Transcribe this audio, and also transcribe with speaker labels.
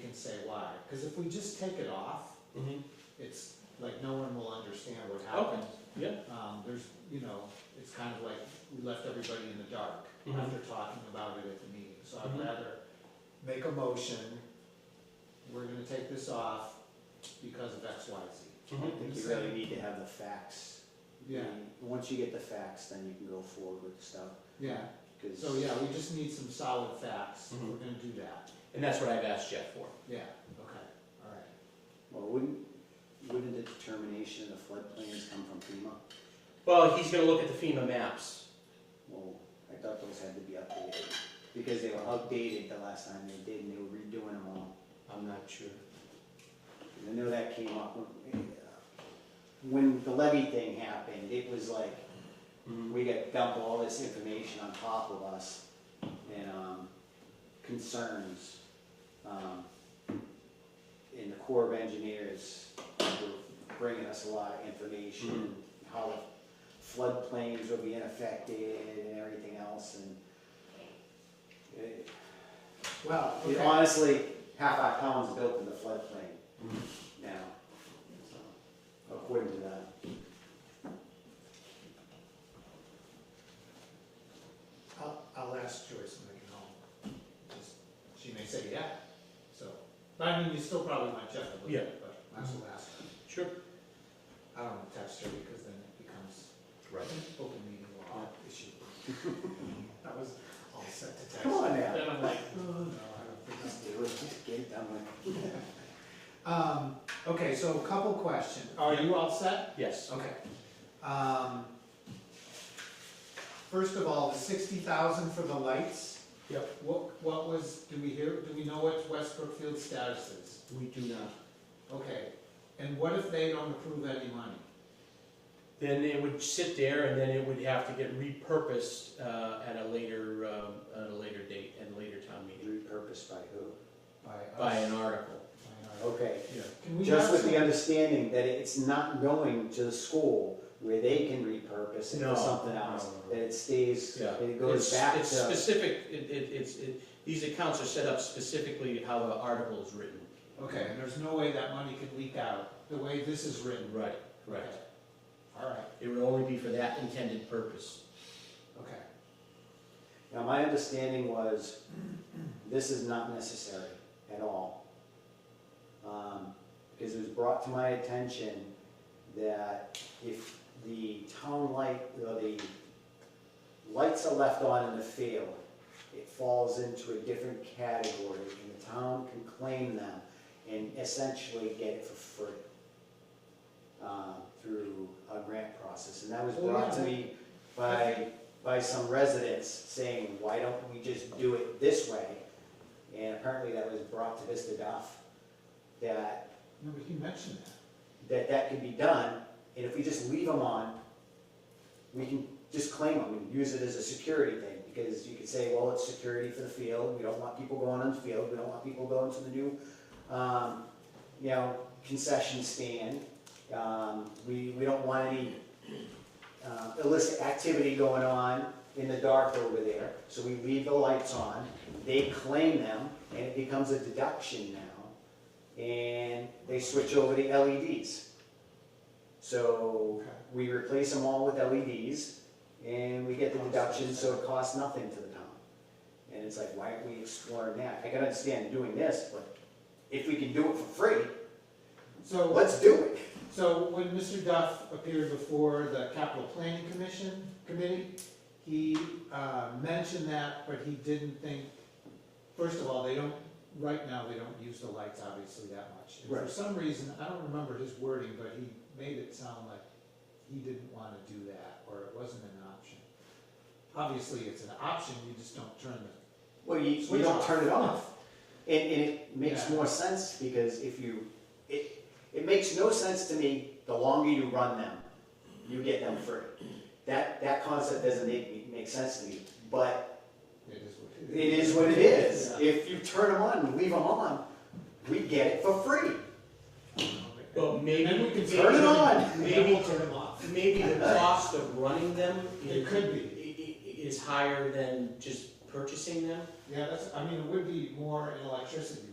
Speaker 1: can say why, because if we just take it off,
Speaker 2: Mhm.
Speaker 1: it's like no one will understand what
Speaker 2: Okay.
Speaker 1: happened.
Speaker 2: Yeah.
Speaker 1: Um, there's, you know, it's kind of like we left everybody in the dark
Speaker 2: Mhm.
Speaker 1: after talking about it at the meeting, so I'd
Speaker 2: Mhm.
Speaker 1: rather make a motion, we're gonna take this off because of X, Y, Z.
Speaker 3: I
Speaker 2: Mhm.
Speaker 3: think you really need to have the facts.
Speaker 1: Yeah,
Speaker 3: And Once you get the facts, then you can go forward with stuff,
Speaker 1: yeah,
Speaker 3: because.
Speaker 1: so Oh, yeah, we just need some solid facts,
Speaker 2: Mhm.
Speaker 1: we're gonna do that,
Speaker 2: And that's what I've asked Jeff for.
Speaker 1: yeah, okay, all right.
Speaker 3: Well, wouldn't, wouldn't the determination of the flood plains come from FEMA?
Speaker 2: Well, he's gonna look at the FEMA maps.
Speaker 3: Well, I thought those had to be updated, because they were outdated the last time they did, and they were redoing them all.
Speaker 2: I'm not sure.
Speaker 3: 'Cause I know that came up when, uh, when the levy thing happened, it was like,
Speaker 2: Mhm.
Speaker 3: we got dump all this information on top of us and um, concerns. Um, and the Corps of Engineers were bringing us a lot of information, how floodplains were being affected and everything else and it,
Speaker 1: Well,
Speaker 3: it
Speaker 1: okay.
Speaker 3: honestly, half our town's built in the floodplain
Speaker 2: Mhm.
Speaker 3: now, so, according to that.
Speaker 1: I'll, I'll ask Joyce when I get home. Just- She may say yeah, so, but I mean, you still probably want Jeff to look at it, but I will ask her.
Speaker 2: Sure.
Speaker 1: I don't want to text her because then it becomes
Speaker 2: Right.
Speaker 1: open meeting law issue. That was all set to text.
Speaker 3: Come on now.
Speaker 1: Then I'm like, oh, no, I don't think I'm
Speaker 3: Just do it, just get it done with.
Speaker 1: Um, okay, so a couple questions. Are you all set?
Speaker 2: Yes.
Speaker 1: Okay. Um, First of all, the sixty thousand for the lights?
Speaker 2: Yep.
Speaker 1: What, what was, do we hear, do we know what West Brookfield's status is?
Speaker 2: We do not.
Speaker 1: Okay, and what if they don't approve any money?
Speaker 2: Then it would sit there and then it would have to get repurposed uh, at a later, um, at a later date and later town meeting
Speaker 3: Repurposed by who?
Speaker 1: By us?
Speaker 2: by an article.
Speaker 1: By us.
Speaker 3: Okay,
Speaker 2: Yeah.
Speaker 1: Can we
Speaker 3: just
Speaker 1: have
Speaker 3: with the
Speaker 1: some,
Speaker 3: understanding that it's not going to the school where they can repurpose it
Speaker 2: No,
Speaker 3: for something else.
Speaker 2: no, no, no.
Speaker 3: That it stays,
Speaker 2: Yeah.
Speaker 3: that it goes
Speaker 2: It's-
Speaker 3: back
Speaker 2: It's
Speaker 3: to,
Speaker 2: specific, it, it, it's, it, these accounts are set up specifically to how the article is written.
Speaker 1: okay, and there's no way that money could leak out, the way this is written?
Speaker 2: Right,
Speaker 1: Okay. All right,
Speaker 2: It would only be for that intended purpose.
Speaker 1: okay,
Speaker 3: now my understanding was, this is not necessary at all. Um, Because it was brought to my attention that if the town light, or the lights are left on in the field, it falls into a different category, and the town can claim them and essentially get it for free uh, through a grant process. And that was
Speaker 1: Oh,
Speaker 3: brought to
Speaker 1: yeah.
Speaker 3: me by, by some residents saying, why don't we just do it this way? And apparently that was brought to Vista Duff, that,
Speaker 1: no, but he mentioned that.
Speaker 3: that that can be done, and if we just leave them on, we can just claim them and use it as a security thing, because you could say, well, it's security for the field, we don't want people going on the field, we don't want people going to the new, um, you know, concession stand, um, we, we don't want any, uh, illicit activity going on in the dark over there, so we leave the lights on, they claim them, and it becomes a deduction now, and they switch over to LEDs. So,
Speaker 1: Okay.
Speaker 3: we replace them all with E LEDs, and we get the deduction, so it costs nothing to the town. And it's like, why aren't we exploring that? I can understand doing this, but if we can do it for free,
Speaker 1: So.
Speaker 3: let's do it.
Speaker 1: So when Mr. Duff appeared before the Capital Planning Commission, committee, he uh, mentioned that, but he didn't think, first of all, they don't, right now, they don't use the lights obviously that much. And for
Speaker 3: Right.
Speaker 1: some reason, I don't remember his wording, but he made it sound like he didn't want to do that, or it wasn't an option. Obviously, it's an option, you just don't turn the,
Speaker 3: Well, you,
Speaker 1: Switch
Speaker 3: you don't
Speaker 1: off.
Speaker 3: turn it off. And, and it makes
Speaker 1: Yeah.
Speaker 3: more sense because if you, it, it makes no sense to me, the longer you run them, you get them free. That, that concept doesn't make, me- make sense to me, but
Speaker 1: it is what
Speaker 3: it
Speaker 1: it is.
Speaker 3: is what it is.
Speaker 1: Yeah.
Speaker 3: If you turn them on and leave them on, we get it for free.
Speaker 2: Well, maybe.
Speaker 1: Then we can
Speaker 3: Turn it on.
Speaker 1: Maybe turn them off.
Speaker 2: Maybe the cost of running them.
Speaker 1: It could be.
Speaker 2: i- i- Is higher than just purchasing them?
Speaker 1: Yeah, that's, I mean, it would be more in electricity,